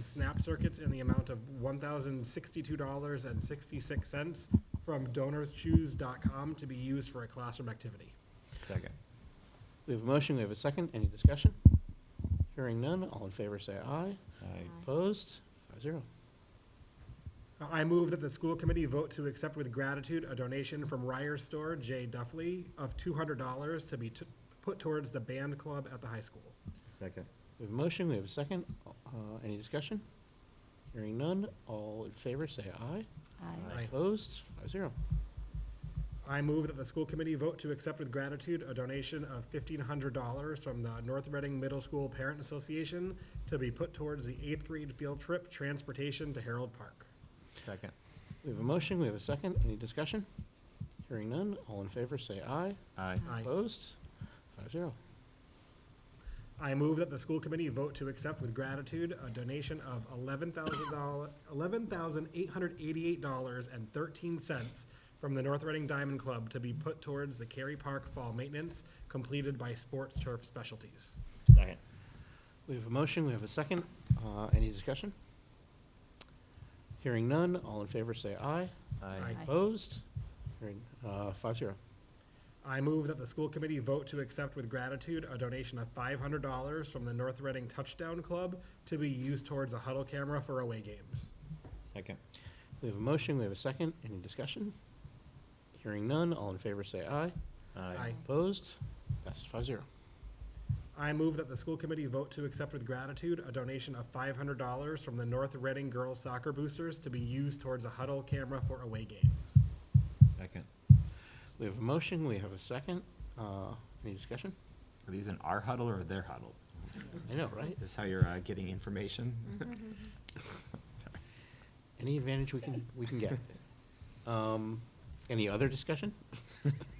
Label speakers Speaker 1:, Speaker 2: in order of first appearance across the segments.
Speaker 1: SNAP circuits in the amount of $1,062.66 from donorschoose.com to be used for a classroom activity.
Speaker 2: Second. We have a motion, we have a second, any discussion? Hearing none, all in favor say aye.
Speaker 3: Aye.
Speaker 2: Opposed, five zero.
Speaker 1: I move that the school committee vote to accept with gratitude a donation from Ryer Store Jay Duffley of $200 to be t- put towards the band club at the high school.
Speaker 3: Second.
Speaker 2: We have a motion, we have a second, uh, any discussion? Hearing none, all in favor say aye.
Speaker 3: Aye.
Speaker 1: Aye.
Speaker 2: Opposed, five zero.
Speaker 1: I move that the school committee vote to accept with gratitude a donation of fifteen hundred dollars from the North Reading Middle School Parent Association to be put towards the eighth grade field trip transportation to Harold Park.
Speaker 3: Second.
Speaker 2: We have a motion, we have a second, any discussion? Hearing none, all in favor say aye.
Speaker 3: Aye.
Speaker 1: Aye.
Speaker 2: Opposed, five zero.
Speaker 1: I move that the school committee vote to accept with gratitude a donation of eleven thousand dollars, eleven thousand eight hundred eighty-eight dollars and thirteen cents from the North Reading Diamond Club to be put towards the Cary Park Fall Maintenance completed by Sports Turf Specialties.
Speaker 3: Second.
Speaker 2: We have a motion, we have a second, uh, any discussion? Hearing none, all in favor say aye.
Speaker 3: Aye.
Speaker 1: Aye.
Speaker 2: Opposed, hearing, uh, five zero.
Speaker 1: I move that the school committee vote to accept with gratitude a donation of five hundred dollars from the North Reading Touchdown Club to be used towards a huddle camera for away games.
Speaker 3: Second.
Speaker 2: We have a motion, we have a second, any discussion? Hearing none, all in favor say aye.
Speaker 1: Aye.
Speaker 2: Opposed? Passes five zero.
Speaker 1: I move that the school committee vote to accept with gratitude a donation of five hundred dollars from the North Reading Girls Soccer Boosters to be used towards a huddle camera for away games.
Speaker 3: Second.
Speaker 2: We have a motion, we have a second, uh, any discussion?
Speaker 3: Are these in our huddle or their huddle?
Speaker 2: I know, right?
Speaker 3: Is this how you're uh, getting information? Sorry.
Speaker 2: Any advantage we can, we can get. Um, any other discussion?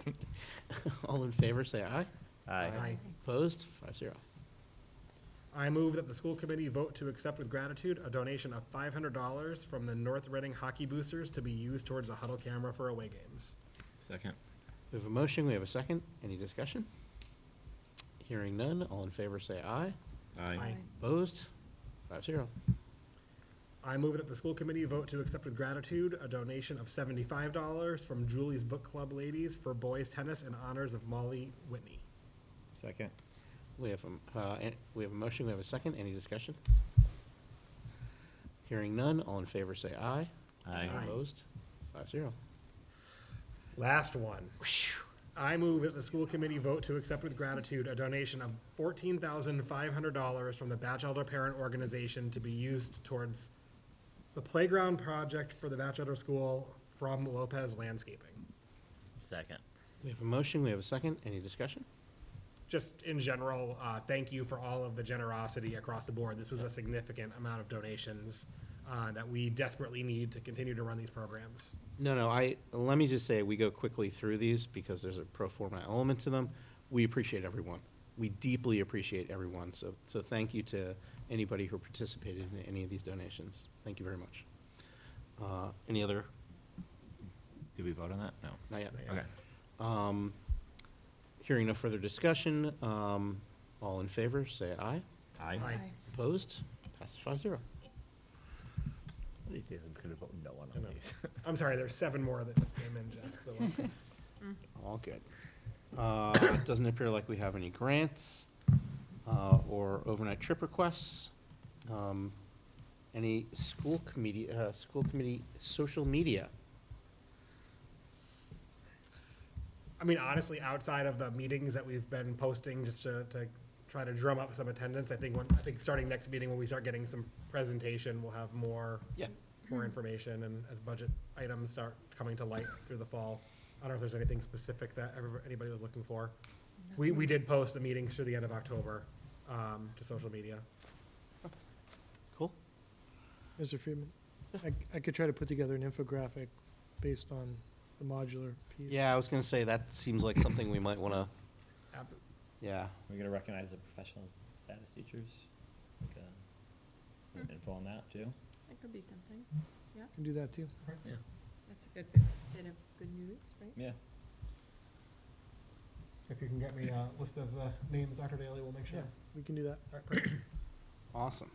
Speaker 2: All in favor, say aye.
Speaker 1: Aye.
Speaker 2: Opposed? Five zero.
Speaker 1: I move that the school committee vote to accept with gratitude a donation of five hundred dollars from the North Reading Hockey Boosters to be used towards a huddle camera for away games.
Speaker 3: Second.
Speaker 2: We have a motion, we have a second, any discussion? Hearing none, all in favor, say aye.
Speaker 1: Aye.
Speaker 2: Opposed? Five zero.
Speaker 1: I move that the school committee vote to accept with gratitude a donation of seventy-five dollars from Julie's Book Club Ladies for boys tennis in honors of Molly Whitney.
Speaker 3: Second.
Speaker 2: We have, a- uh, an- we have a motion, we have a second, any discussion? Hearing none, all in favor say aye.
Speaker 1: Aye.
Speaker 2: Opposed? Five zero.
Speaker 1: Last one. I move that the school committee vote to accept with gratitude a donation of fourteen thousand five hundred dollars from the Batchelder Parent Organization to be used towards the playground project for the Batchelder School from Lopez Landscaping.
Speaker 3: Second.
Speaker 2: We have a motion, we have a second, any discussion?
Speaker 1: Just in general, uh, thank you for all of the generosity across the board. This was a significant amount of donations uh, that we desperately need to continue to run these programs.
Speaker 2: No, no, I, let me just say, we go quickly through these because there's a pro forma element to them. We appreciate everyone. We deeply appreciate everyone, so, so thank you to anybody who participated in any of these donations. Thank you very much. Uh, Any other?
Speaker 3: Did we vote on that? No.
Speaker 2: Not yet.
Speaker 1: Not yet.
Speaker 3: Okay.
Speaker 2: Um, Hearing no further discussion, um, all in favor, say aye.
Speaker 3: Aye.
Speaker 1: Aye.
Speaker 2: Opposed? Passes five zero.
Speaker 3: These days I'm gonna vote no one
Speaker 1: I know. I'm sorry, there's seven more that just came in, Jeff. so-
Speaker 2: All good. Uh, it Doesn't appear like we have any grants uh, or overnight trip requests. Um, Any school committee, uh, school committee social media?
Speaker 1: I mean, honestly, outside of the meetings that we've been posting, just to, to try to drum up some attendance, I think when, I think starting next meeting, when we start getting some presentation, we'll have more,
Speaker 2: Yeah,
Speaker 1: more information, and as budget items start coming to light through the fall. I don't know if there's anything specific that ever- anybody was looking for. We, we did post the meetings through the end of October, um, to social media.
Speaker 2: cool.
Speaker 4: Mr. Friedman, I, I could try to put together an infographic based on the modular piece.
Speaker 2: Yeah, I was gonna say, that seems like something we might wanna,
Speaker 1: Ab-
Speaker 2: yeah.
Speaker 5: We're gonna recognize the professional status teachers, like,
Speaker 1: Hmm.
Speaker 5: uh, info on that too.
Speaker 6: That could be something. Yeah,
Speaker 4: Can do that too.
Speaker 5: Yeah.
Speaker 6: that's a good bit, bit of good news, right?
Speaker 5: Yeah,
Speaker 1: If you can get me a list of the names, Dr. Daly will make sure.
Speaker 4: We can do that.
Speaker 1: All right, perfect.
Speaker 2: Awesome.